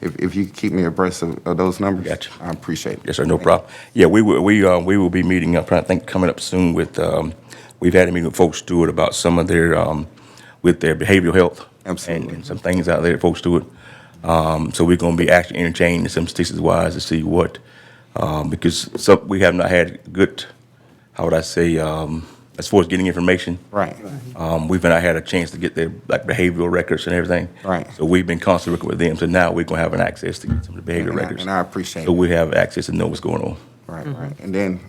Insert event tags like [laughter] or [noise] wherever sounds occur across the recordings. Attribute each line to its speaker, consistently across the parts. Speaker 1: if, if you could keep me abreast of, of those numbers.
Speaker 2: Gotcha.
Speaker 1: I appreciate it.
Speaker 2: Yes, sir, no problem. Yeah, we will, we, uh, we will be meeting, I'm trying to think, coming up soon with, um, we've had a meeting with folks Stewart about some of their, um, with their behavioral health. and-
Speaker 1: Absolutely.
Speaker 2: And some things out there at folks Stewart. Um, so we're gonna be actually interchanging some statistics wise to see what, um, because some, we have not had good, how would I say, um, as far as getting information.
Speaker 1: Right.
Speaker 2: Um, we've not had a chance to get their, like, behavioral records and everything.
Speaker 1: Right.
Speaker 2: So we've been constantly working with them, so now we're gonna have an access to some of the behavioral
Speaker 1: And I-
Speaker 2: records.
Speaker 1: and I appreciate
Speaker 2: So
Speaker 1: it.
Speaker 2: we have access to know what's going on.
Speaker 1: Right, right. And then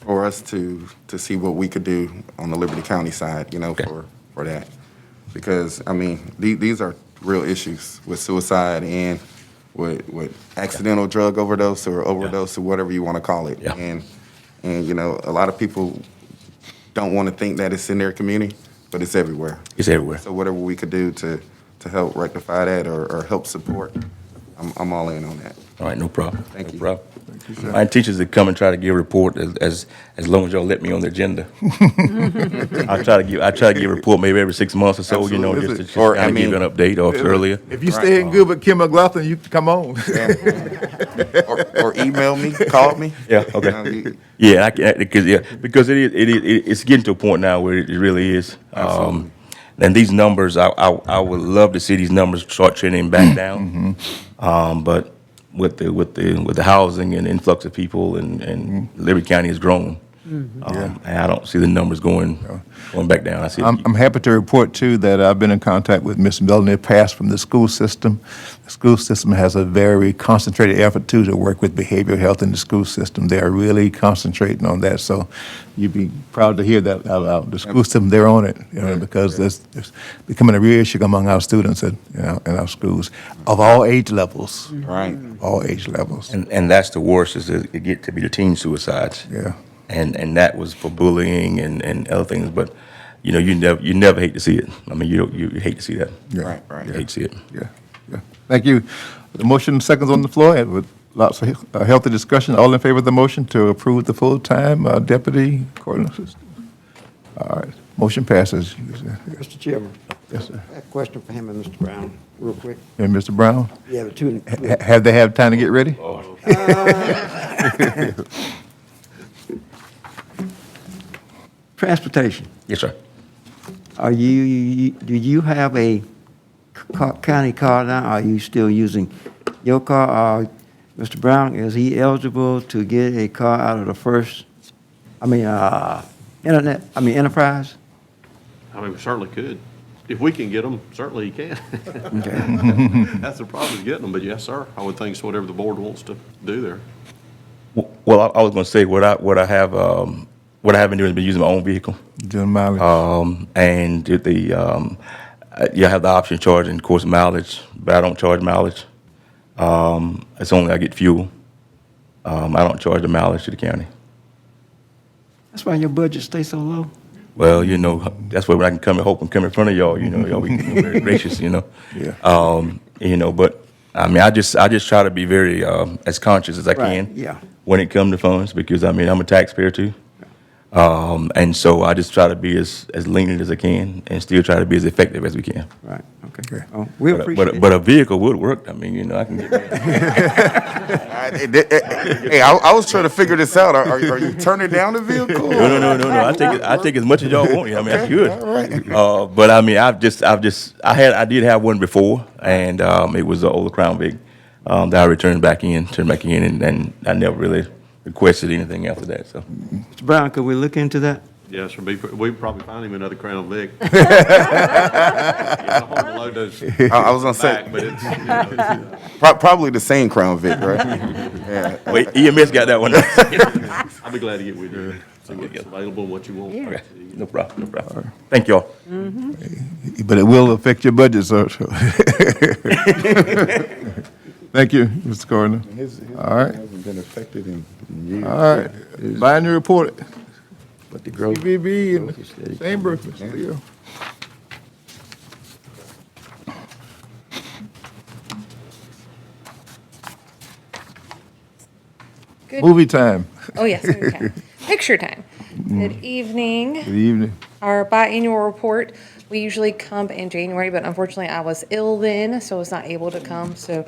Speaker 1: for us to, to see what we could do on the Liberty County side, you know,
Speaker 2: Okay.
Speaker 1: for, for that. Because, I mean, the, these are real issues with suicide and with, with accidental drug overdose or overdose or whatever you want to call it.
Speaker 2: Yeah.
Speaker 1: And, and, you know, a lot of people don't want to think that it's in their community, but it's everywhere.
Speaker 2: It's everywhere.
Speaker 1: So whatever we could do to, to help rectify that or, or help support, I'm, I'm all in on that.
Speaker 2: All right, no problem.
Speaker 1: Thank
Speaker 2: No
Speaker 1: you.
Speaker 2: problem. My teachers that come and try to give a report as, as, as long as y'all let me on
Speaker 1: [laughs]
Speaker 2: the agenda. I try to give, I try to give a report maybe every six months or so, you know, just to,
Speaker 1: Absolutely.
Speaker 2: just
Speaker 1: Or,
Speaker 2: to
Speaker 1: I
Speaker 2: kind of give
Speaker 1: mean-
Speaker 2: an update or if earlier.
Speaker 3: If you stay in good with Kim McLaughlin, you can come on.
Speaker 1: or, or email me, call me.
Speaker 2: [laughs] Yeah,
Speaker 1: You know,
Speaker 2: okay.
Speaker 1: you-
Speaker 2: Yeah, I can, because, yeah, because it is, it is, it- it's getting to a point now where it really is. Um, and these numbers, I, I, I would love to see these numbers start trending back down. Um, but with the, with the, with the housing and influx of people and, and Liberty County has grown. Um, and I don't see the numbers going, going back down. I see,
Speaker 3: [laughs] I'm, I'm happy to report too that I've been in contact with Ms. Miller in the past from the school system. The school system has a very concentrated effort too to work with behavioral health in the school system. They are really concentrating on that, so you'd be proud to hear that out loud. The school system, they're on it, you know, because it's, it's becoming a real issue among our students in, in our, in our schools of all age levels,
Speaker 1: Right.
Speaker 3: all age levels,
Speaker 2: and, and that's the worst is it get to be the teen suicides.
Speaker 3: yeah.
Speaker 2: and and that was for bullying and and other things. But you know, you never you never hate to see it. I mean, you don't, you hate to see that.
Speaker 3: Yeah.
Speaker 1: Right, right.
Speaker 2: You hate to see it.
Speaker 3: Yeah, yeah. Thank you. The motion seconds on the floor and with lots of he- uh, healthy discussion. All in favor of the motion to approve the full-time uh, deputy coordinator? assistant? All right, motion passes.
Speaker 4: Mr. Chairman,
Speaker 3: Yes, sir.
Speaker 4: a question for him and Mr. Brown, real quick.
Speaker 3: And Mr. Brown,
Speaker 4: You have a two,
Speaker 3: ha- have they had time to get ready?
Speaker 4: transportation,
Speaker 2: Yes, sir.
Speaker 4: are you, do you have a co- county car now? Are you still using your car? Or, Mr. Brown, is he eligible to get a car out of the first, I mean, uh, internet, I mean, enterprise?
Speaker 5: I mean, we certainly could. If we can get them, certainly you can. [laughs]
Speaker 4: Okay.
Speaker 5: That's the problem, is getting them, but yes, sir, I would think so, whatever the board wants to do there.
Speaker 2: W- Well, I, I was going to say what I what I have um, what I have been doing is been using my own vehicle,
Speaker 3: Doing mileage.
Speaker 2: um, and did the um, uh, you have the option of charging, of course, mileage, but I don't charge mileage. Um, it's only I get fuel. Um, I don't charge the mileage to the county.
Speaker 4: [laughs] That's why your budget stays so low?
Speaker 2: Well, you know, that's where I can come and hope and come in front of y'all. You know, y'all
Speaker 4: [laughs]
Speaker 2: be very gracious. You know,
Speaker 3: Yeah.
Speaker 2: Um, you know, but I mean, I just I just try to be very um, as conscious as I
Speaker 4: Right,
Speaker 2: can.
Speaker 4: yeah.
Speaker 2: When it comes to funds, because I mean, I'm a taxpayer too. Um, and so I just try to be as as lenient as I can, and still try to be as effective as we can.
Speaker 4: Right, okay.
Speaker 3: Okay.
Speaker 4: Oh, We
Speaker 2: But a, but,
Speaker 4: appreciate
Speaker 2: a,
Speaker 4: it.
Speaker 2: but a vehicle would work. I mean, you know, I can get
Speaker 1: I- I- I- Hey, I, I was trying to figure this out. Are, are you turning down the vehicle?
Speaker 2: no, no, no, no, no. I take I take as much as y'all want. I mean, that's good. Uh, but I mean, I've just, I've just, I had, I did have one before, and um, it was the old Crown Vic um, that I returned back in, turned back in, and, and I never really requested anything after that. So
Speaker 4: Mr. Brown, could we look into that?
Speaker 5: Yes, sir, we we'd probably find him another Crown Vic. [laughs] It's hard to load those
Speaker 1: I, I was gonna
Speaker 5: back,
Speaker 1: say
Speaker 5: but it's, you know, it's,
Speaker 1: pro- probably the same Crown Vic, right?
Speaker 2: wait, EMS got that one. [laughs]
Speaker 5: I'll be glad to get with you, see what's available and what you want.
Speaker 2: okay, no problem, no problem. Thank y'all.
Speaker 3: But it will affect your budget, sir. so. [laughs] Thank you, Mr. Coroner.
Speaker 6: His, his
Speaker 3: All right.
Speaker 6: hasn't been affected in in years.
Speaker 3: All right, binding report,
Speaker 4: But the growth,
Speaker 3: CBB in
Speaker 4: growth is steady.
Speaker 3: the chamber, Mr. Leo.
Speaker 7: Good.
Speaker 3: Movie time,
Speaker 7: Oh, yes, movie time. Picture time. Good evening.
Speaker 3: good evening.
Speaker 7: Our biannual report, we usually come in January, but unfortunately I was ill then, so I was not able to come. So